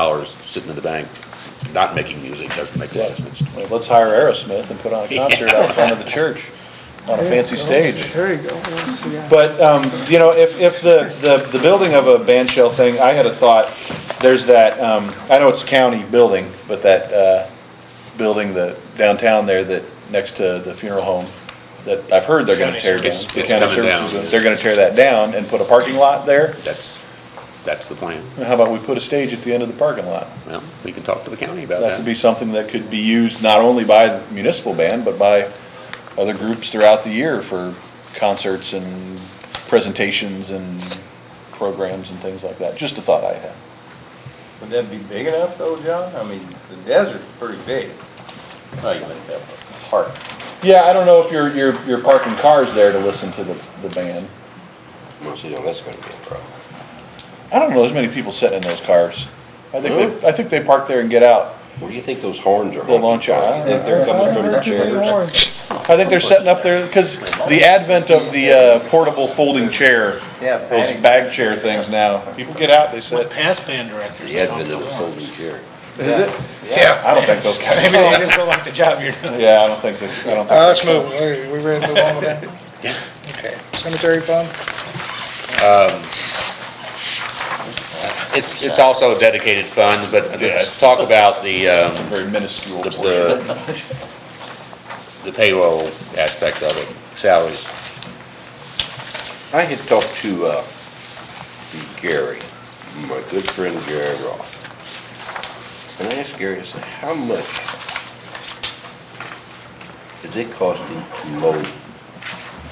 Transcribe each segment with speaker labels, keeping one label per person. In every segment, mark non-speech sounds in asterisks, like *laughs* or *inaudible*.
Speaker 1: dollars sitting in the bank, not making music, doesn't make any sense.
Speaker 2: Well, Let's hire Aerosmith and
Speaker 1: *laughs*
Speaker 2: put on a concert out front of the church on a fancy stage.
Speaker 3: There you go. Yeah.
Speaker 2: But, um, you know, if, if the, the, the building of a band shell thing, I had a thought, there's that, um, I know it's a county building, but that, uh, building the downtown there that, next to the funeral home, that I've heard they're gonna tear down.
Speaker 1: It's-
Speaker 2: The
Speaker 1: it's
Speaker 2: county
Speaker 1: coming down.
Speaker 2: services, They're gonna tear that down and put a parking lot there.
Speaker 1: That's, that's the plan.
Speaker 2: How about we put a stage at the end of the parking lot?
Speaker 1: Well, we can talk to the county about
Speaker 2: That could be
Speaker 1: that.
Speaker 2: something that could be used not only by the municipal band, but by other groups throughout the year for concerts and presentations and programs and things like that. Just a thought I had.
Speaker 4: Would that be big enough though, John? I mean, the desert's pretty big. How you make that park?
Speaker 2: Yeah, I don't know if you're, you're, you're parking cars there to listen to the, the band.
Speaker 5: Well, see, now that's gonna be a problem.
Speaker 2: I don't know as many people sitting in those cars. I think they, I think they park there and get out.
Speaker 5: Where do you think those horns are?
Speaker 2: The launch out.
Speaker 5: Think They're coming from the chairs.
Speaker 2: I think they're setting up there, because the advent of the uh, portable folding chair,
Speaker 4: Yeah,
Speaker 2: those bag chair things now, people get out, they sit.
Speaker 6: past band directors.
Speaker 5: The advent of a folding chair.
Speaker 2: Is it? Yeah. I don't think those guys,
Speaker 6: *laughs* Maybe they just don't like the job you're doing.
Speaker 2: yeah, I don't think, that- I don't think.
Speaker 3: Uh,
Speaker 6: let's move, Hey, we ready to move on
Speaker 4: *laughs*
Speaker 6: with that?
Speaker 1: Yeah.
Speaker 6: Okay, cemetery fund?
Speaker 1: It's, it's also a dedicated fund, but let's talk about the, um,
Speaker 2: Very minuscule
Speaker 1: the-
Speaker 2: portion.
Speaker 1: the, the payroll aspect of it, salaries.
Speaker 5: I had talked to, uh, to Gary, my good friend Gary Ross. And I asked Gary, I said, how much is it costing to mow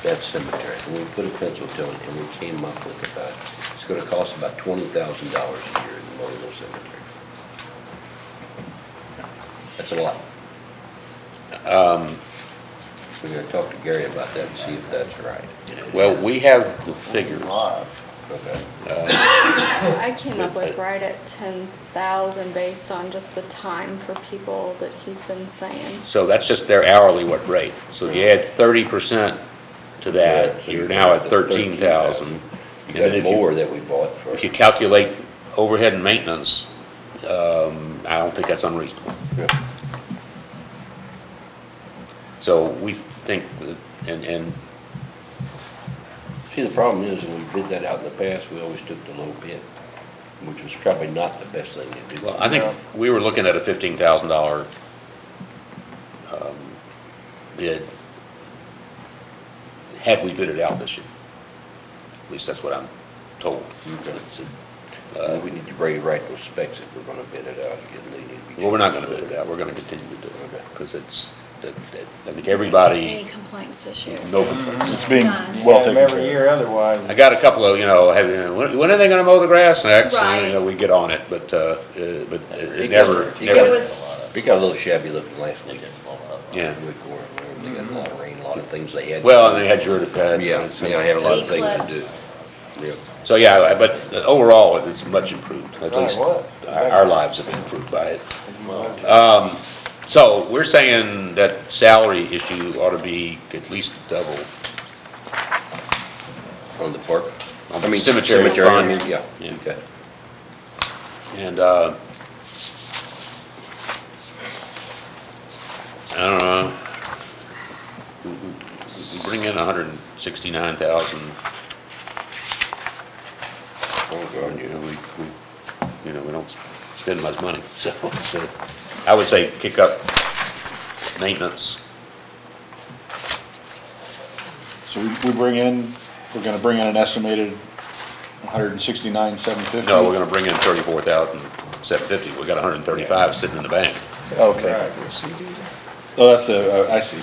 Speaker 5: that cemetery? And we put a pencil to it and we came up with about, it's gonna cost about twenty thousand dollars a year to mow those cemeteries. That's a lot.
Speaker 1: Um,
Speaker 5: We're gonna talk to Gary about that and see if that's right.
Speaker 1: well, we have the figures.
Speaker 5: Okay.
Speaker 7: I came up with right at ten thousand based on just the time for people that he's been saying.
Speaker 1: So that's just their hourly what rate. So if you add thirty percent to
Speaker 5: Yeah,
Speaker 1: that,
Speaker 5: so
Speaker 1: you're
Speaker 5: you're
Speaker 1: now
Speaker 5: at
Speaker 1: at
Speaker 5: the
Speaker 1: thirteen thousand.
Speaker 5: You got more that we bought for.
Speaker 1: If you calculate overhead and maintenance, um, I don't think that's unreasonable.
Speaker 5: Yeah.
Speaker 1: So we think, that- and, and
Speaker 5: See, the problem is, when we bid that out in the past, we always took the low bid, which was probably not the best thing to do.
Speaker 1: Well, I think we were looking at a fifteen thousand dollar um, bid, had we bid it out this year. At least that's what I'm told.
Speaker 5: Okay.
Speaker 1: It's,
Speaker 5: Uh,
Speaker 1: uh,
Speaker 5: we need to bring right those specs if we're gonna bid it out again, they need to be.
Speaker 1: Well, we're not gonna bid it out, we're gonna continue to do it,
Speaker 5: Okay.
Speaker 1: because it's, that- that- I think
Speaker 7: Any
Speaker 1: everybody,
Speaker 7: complaints this year?
Speaker 1: no complaints.
Speaker 2: It's being
Speaker 7: Done.
Speaker 2: well taken
Speaker 4: Every
Speaker 2: care
Speaker 4: year otherwise.
Speaker 1: I got a couple of, you know, have, you know, when when are they gonna mow the grass next? And, you
Speaker 7: Right.
Speaker 1: know, we get on it, but, uh, uh, but it
Speaker 5: He
Speaker 1: it never,
Speaker 5: got- he
Speaker 1: never.
Speaker 7: It
Speaker 5: got-
Speaker 7: was,
Speaker 5: It got a little shabby looking last week.
Speaker 1: Yeah.
Speaker 5: Week or, or they got
Speaker 7: Mm-hmm.
Speaker 5: a lot of rain, a lot of things they had. to
Speaker 1: Well,
Speaker 5: do.
Speaker 1: and they had your, uh,
Speaker 5: Yeah, yeah, I had a lot of things to
Speaker 7: Eclipse.
Speaker 5: do. Yeah.
Speaker 1: So, yeah, I- but overall, it's much improved, at
Speaker 4: Right,
Speaker 1: least our
Speaker 4: what?
Speaker 1: our lives have been improved by it. Um, So we're saying that salary issue ought to be at least double.
Speaker 5: On the park?
Speaker 1: On
Speaker 5: I
Speaker 1: the
Speaker 5: mean,
Speaker 1: cemetery
Speaker 5: I
Speaker 1: fund.
Speaker 5: mean, Yeah,
Speaker 1: Yeah.
Speaker 5: okay.
Speaker 1: And, uh, I don't know, we- we we bring in 169,000,
Speaker 5: Oh, God,
Speaker 1: you
Speaker 5: yeah.
Speaker 1: know, we, we, you know, we don't spend much money, *laughs* so it's, uh, I would say kick up maintenance.
Speaker 2: of. So we, we bring in, we're gonna bring in an estimated one hundred and sixty-nine, seven fifty?
Speaker 1: No, we're gonna bring in 34,750, we got 135 sitting in the bank.
Speaker 2: Okay. Oh, that's the, uh, I see.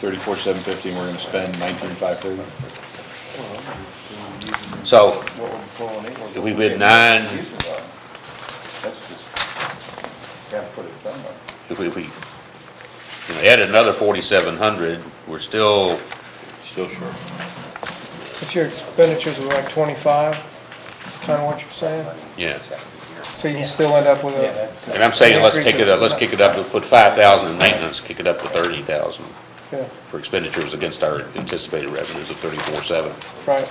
Speaker 2: Thirty-four, seven fifty, and we're gonna spend nineteen, five thirty.
Speaker 1: So,
Speaker 4: What we're pulling in, we're-
Speaker 1: If we bid nine-
Speaker 4: That's just, gotta put it somewhere.
Speaker 1: if we, if we, you know, add another 4,700, we're still
Speaker 5: Still short.
Speaker 3: If your expenditures were like twenty-five, kind of what you're saying,
Speaker 1: Yeah,
Speaker 3: so you still end up with
Speaker 4: Yeah,
Speaker 3: a,
Speaker 4: that's-
Speaker 1: and I'm saying, let's take it, up. let's kick it up, put five thousand in maintenance, kick it up to thirty thousand
Speaker 3: yeah,
Speaker 1: for expenditures against our anticipated revenues of thirty-four seven.
Speaker 3: right.